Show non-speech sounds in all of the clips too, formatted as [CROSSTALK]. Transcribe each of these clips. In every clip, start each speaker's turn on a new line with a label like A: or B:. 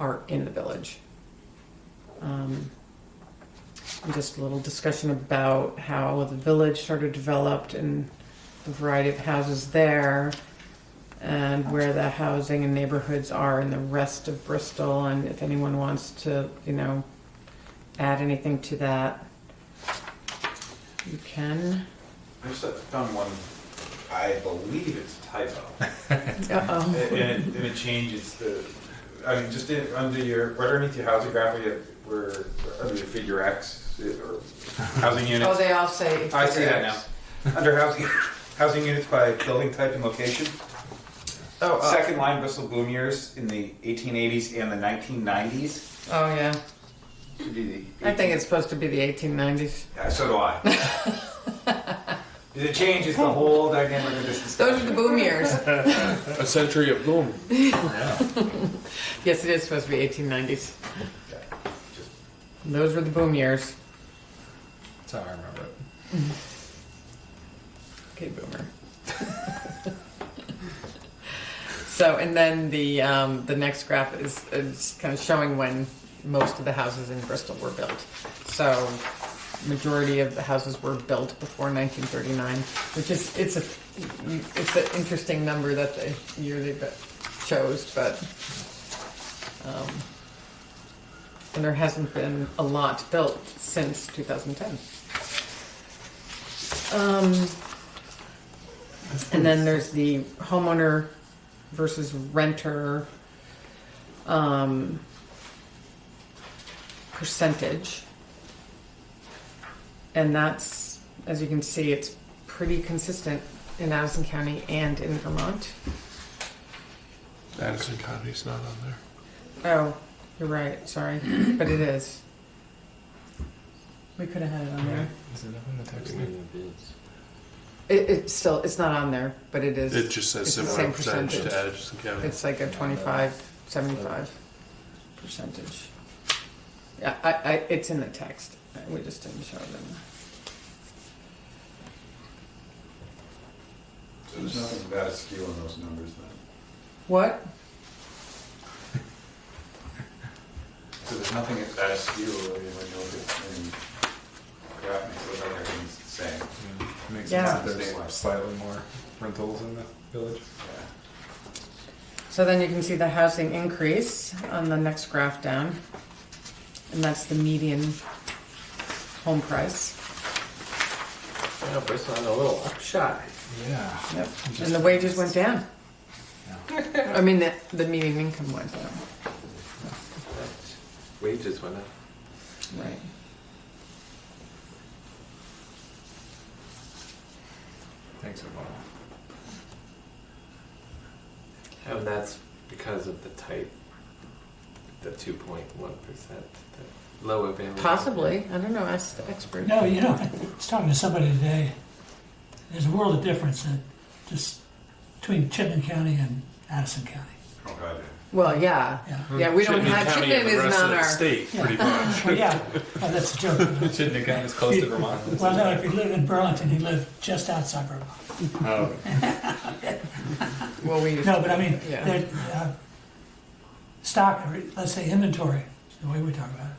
A: art in the village. Um, and just a little discussion about how the village sort of developed and the variety of houses there and where the housing and neighborhoods are in the rest of Bristol and if anyone wants to, you know, add anything to that, you can.
B: I just found one, I believe it's a
A: [LAUGHS]
B: typo.
A: Uh-oh.
B: And and it, and it changes the, I mean, just in, under your, right underneath your housing graph, where, you- where, under your figure X, it- or housing
A: Oh,
B: units.
A: they all say.
B: I see that now. Under housing, [LAUGHS] housing units by building type and location.
A: Oh, oh.
B: Second line Bristol boom years in the eighteen eighties and the nineteen nineties.
A: Oh, yeah. I think it's supposed to be the 1890s.
B: So do I.
A: [LAUGHS]
B: It changes the whole dynamic of this
A: Those are the
B: discussion.
A: boom years.
C: A century of boom.
A: Yes, it is supposed to be 1890s.
B: Yeah, just-
A: Those were the boom years.
C: That's how I remember it.
A: Okay, boomer. [LAUGHS] so, and then the um, the next graph is, is kind of showing when most of the houses in Bristol were built. So, majority of the houses were built before 1939, which is it's a it's an interesting number that the year they bu- chose, but. Um, and there hasn't been a lot built since 2010. Um, and then there's the homeowner versus renter um, percentage. And that's, as you can see, it's pretty consistent in Madison County and in Vermont.
C: Addison County's not on there.
A: Oh, you're right, sorry, but it is. We could have had it on there.
C: Is it up in the text?
A: It, it's still, it's not on there, but it is.
C: It just says
A: It's the
C: similar
A: same
C: percentage to
A: percentage.
C: Addison County.
A: It's like a 25, 75 percentage. Yeah, I, I, it's in the text. We just didn't show them.
B: So there's nothing about a skew on those numbers then?
A: What?
B: So there's nothing about a skew when you look at, when graph makes it look like everything's the same.
C: Makes
A: Yeah.
C: sense that there's slightly more rentals in the village.
B: Yeah.
A: So then you can see the housing increase on the next graph down. And that's the median home price.
D: Yeah, Bristol had a little upshot.
C: Yeah.
A: Yep. And the wages went down. I mean, the, the median income went down.
D: Wages went up.
A: Right.
C: Thanks, Obama.
D: And that's because of the type, the 2.1%, the low availability.
A: Possibly. I don't know, ask the expert.
E: No, you know, I was talking to somebody today, there's a world of difference in just between Chittenden County and Addison County.
B: Oh, God,
A: Well, yeah.
E: Yeah.
C: Hmm.
A: Yeah, we don't
C: Chittenden
A: have,
C: County and
A: Chittenden
C: the
A: is
C: rest of
A: not
C: the
A: our.
C: State, pretty much.
E: Well, yeah, well, that's a joke. you know.
C: Chittenden County's close to Vermont.
E: Well, no, if you live in Burlington, you live just outside Burlington.
A: [LAUGHS] Um,
C: Oh,
A: Well, we used
E: No, but I mean,
A: Yeah.
E: there, uh, stock, or let's say inventory, is the way we talk about it,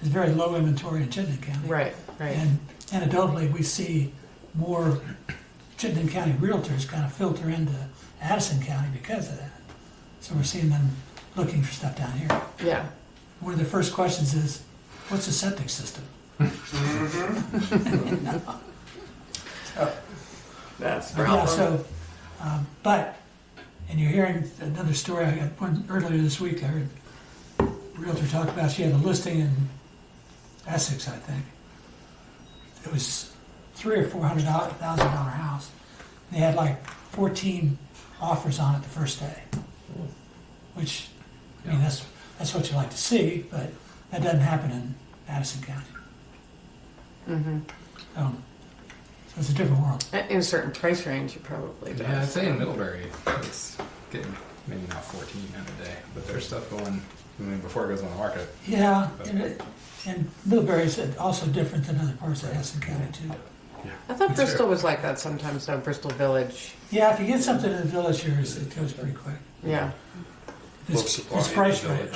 E: there's very low inventory in Chittenden County.
A: Right, right.
E: And anecdotally, we see more Chittenden County realtors kind of filter into Addison County because of that. So we're seeing them looking for stuff down here.
A: Yeah.
E: One of the first questions is, what's a septic system?
A: That's
E: Yeah, so, um, but, and you're hearing another story, I got one earlier this week, I heard a Realtor talk about, she had a listing in Essex, I think. It was three or four hundred thousand dollar house. They had like fourteen offers on it the first day. Which, I mean, that's, that's what you like to see, but that doesn't happen in Madison County. So, so it's a different world.
A: In Mm-hmm. a certain price range, it probably
F: Yeah, I'd
A: does.
F: say in Middlebury, it's getting maybe not 14 in a day, but there's stuff going. I mean, before it goes on the market.
E: Yeah, and it- and Middlebury is also different than other parts of Hessen County too.
A: I thought Bristol was like that sometimes, though, Bristol Village.
E: Yeah, if you get something in the village here, it's- it goes pretty quick.
A: Yeah.
E: It's-
C: Low supply
E: It's
C: in
E: priced
C: the
E: right.
C: village.